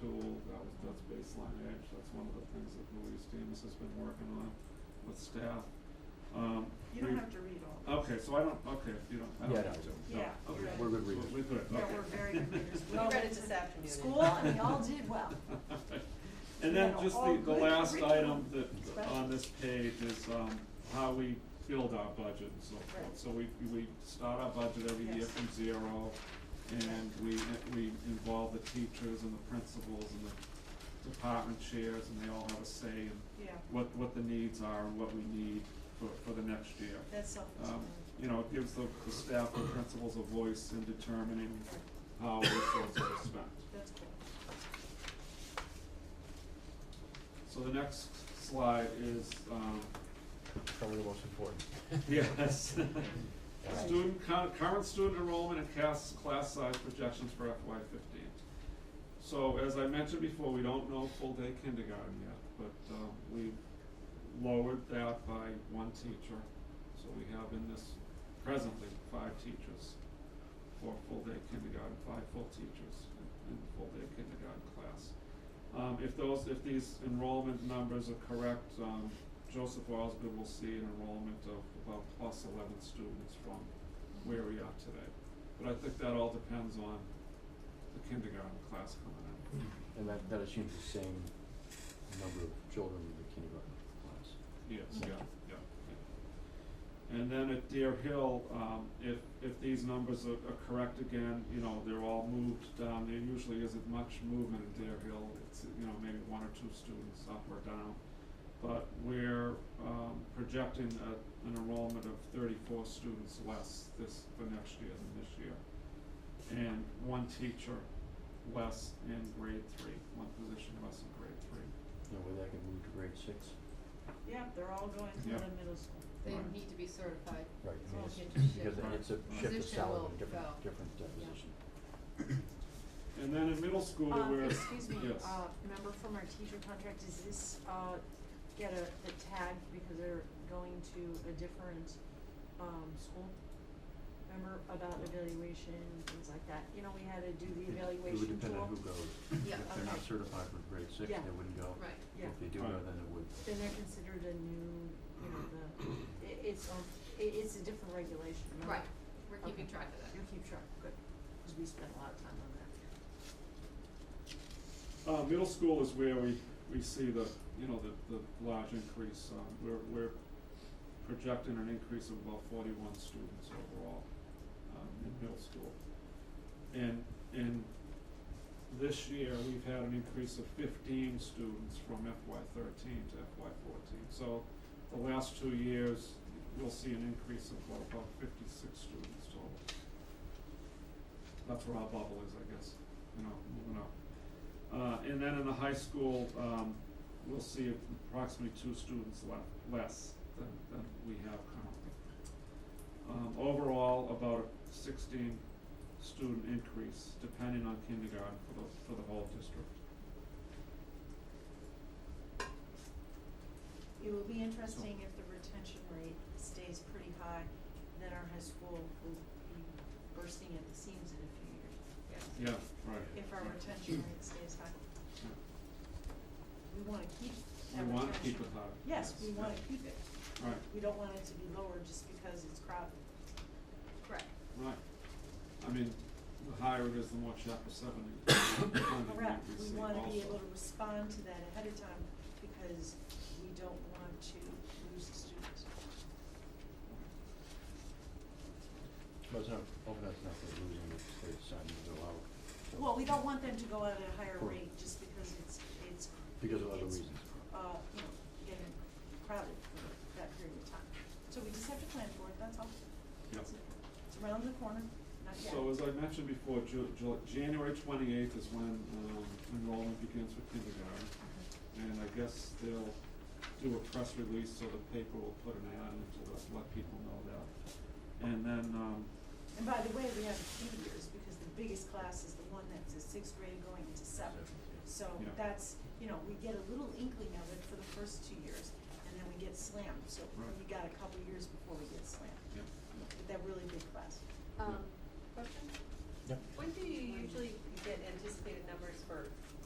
tool, that was, that's baseline edge, that's one of the things that Louise Demus has been working on with staff. Um, You don't we- have to read all. Okay, so I don't, okay, if you don't, I don't. Yeah, have no. to. No, Yeah, you're okay. right. We're good So readers. We're good, Yeah, Oh, okay. we're very good readers. We all read went it this to afternoon. School and we all did well. And Yeah, then just all the, the good last item curriculum. that, on this page is, um, how we build our budget and so Right. forth. So we, we start our budget every year Yes. from zero, and we, we involve the teachers and the principals and the department chairs, and they all have a say in Yeah, what, what the needs are and what we need for, for the next year. that's Um, self-explanatory. you know, it gives the, the staff and principals a voice in determining how resources are spent. That's cool. So the next slide is, um, Probably the most important. yes. Uh, Student, cur- current student enrollment and class, class size projections for FY fifteen. So as I mentioned before, we don't know full day kindergarten yet, but, um, we lowered that by one teacher. So we have in this presently five teachers for full day kindergarten, five full teachers in- in full day kindergarten class. Um, if those, if these enrollment numbers are correct, um, Joseph Osgood will see an enrollment of about plus eleven students from where we are today. But I think that all depends on the kindergarten class coming in. And that, that assumes the same number of children in the kindergarten class. Yes, yeah, Mhm. yeah, yeah. And then at Deer Hill, um, if, if these numbers are, are correct again, you know, they're all moved down, there usually isn't much movement at Deer Hill, it's, you know, maybe one or two students up or down. But we're, um, projecting a, an enrollment of thirty-four students less this, for next year than this year. And one teacher less in grade three, one position less in grade three. You know, whether that can move to grade six. Yeah, they're all going to Yeah. the middle school. They Right. need to be certified. Right, I mean, So it's, it can because shift. it's a Right. shift of Position salary, will in a different, go. different uh, Yeah. position. And then in middle school, Um, we're, yes. excuse me, uh, remember from our teacher contract, does this, uh, get a, a tag because they're going to a different, um, school? Remember about evaluation, things like that, you know, we had to do the It would evaluation depend on tool, who goes. Yeah, If they're not okay. certified for grade six, Yeah. they wouldn't go. Right. yeah, If they do go, Right. then it would. then they're considered a new, you know, the, i- it's, a- i- it's a different regulation, remember? Right, we're keeping Okay. track of You that. keep track, good, cause we spent a lot of time on that. Uh, middle school is where we, we see the, you know, the, the large increase, um, we're, we're projecting an increase of about forty-one students overall, um, in middle school. And, and this year, we've had an increase of fifteen students from FY thirteen to FY fourteen. So the last two years, we'll see an increase of about, about fifty-six students total. That's where our bubble is, I guess, you know, moving up. Uh, and then in the high school, um, we'll see approximately two students left, less than, than we have currently. Um, overall, about a sixteen student increase, depending on kindergarten for the, for the whole district. It will be interesting if the retention rate stays pretty high, then our high school will be bursting at the seams in a few years. Yeah, right. If our right. retention rate stays high, Yeah. we wanna keep that retention. We wanna keep it high. Yes, we wanna yeah. keep it. Right, We don't want it to be lower just because it's crowded. Correct. right. I mean, the higher it is, the more chapter seven funding Correct, we we receive wanna be also. able to respond to that ahead of time because we don't want to lose students. But it's not, open up enough for losing if they decide to go out. so- Well, we don't want them to go out at a higher Correct. rate just because it's, it's. Because of other it's, reasons. Uh, you know, getting crowded for that period of time. So we just have to plan for it, that's all. Yeah. That's it. It's around the corner, not yet. So as I mentioned before, Ju- Ju- January twenty-eighth is when, um, enrollment begins for kindergarten. And I guess they'll do a press release, so the paper will put an ad in to let, let people know that. And then, um, And by the way, we have two years because the biggest class is the one that's a sixth grade going into seventh. So Yeah. that's, you know, we get a little inkling of it for the first two years and then we get slammed. So Right. we got a couple years before we get slammed yeah, with that really big class. Um, question? Yep. When do you usually get anticipated numbers for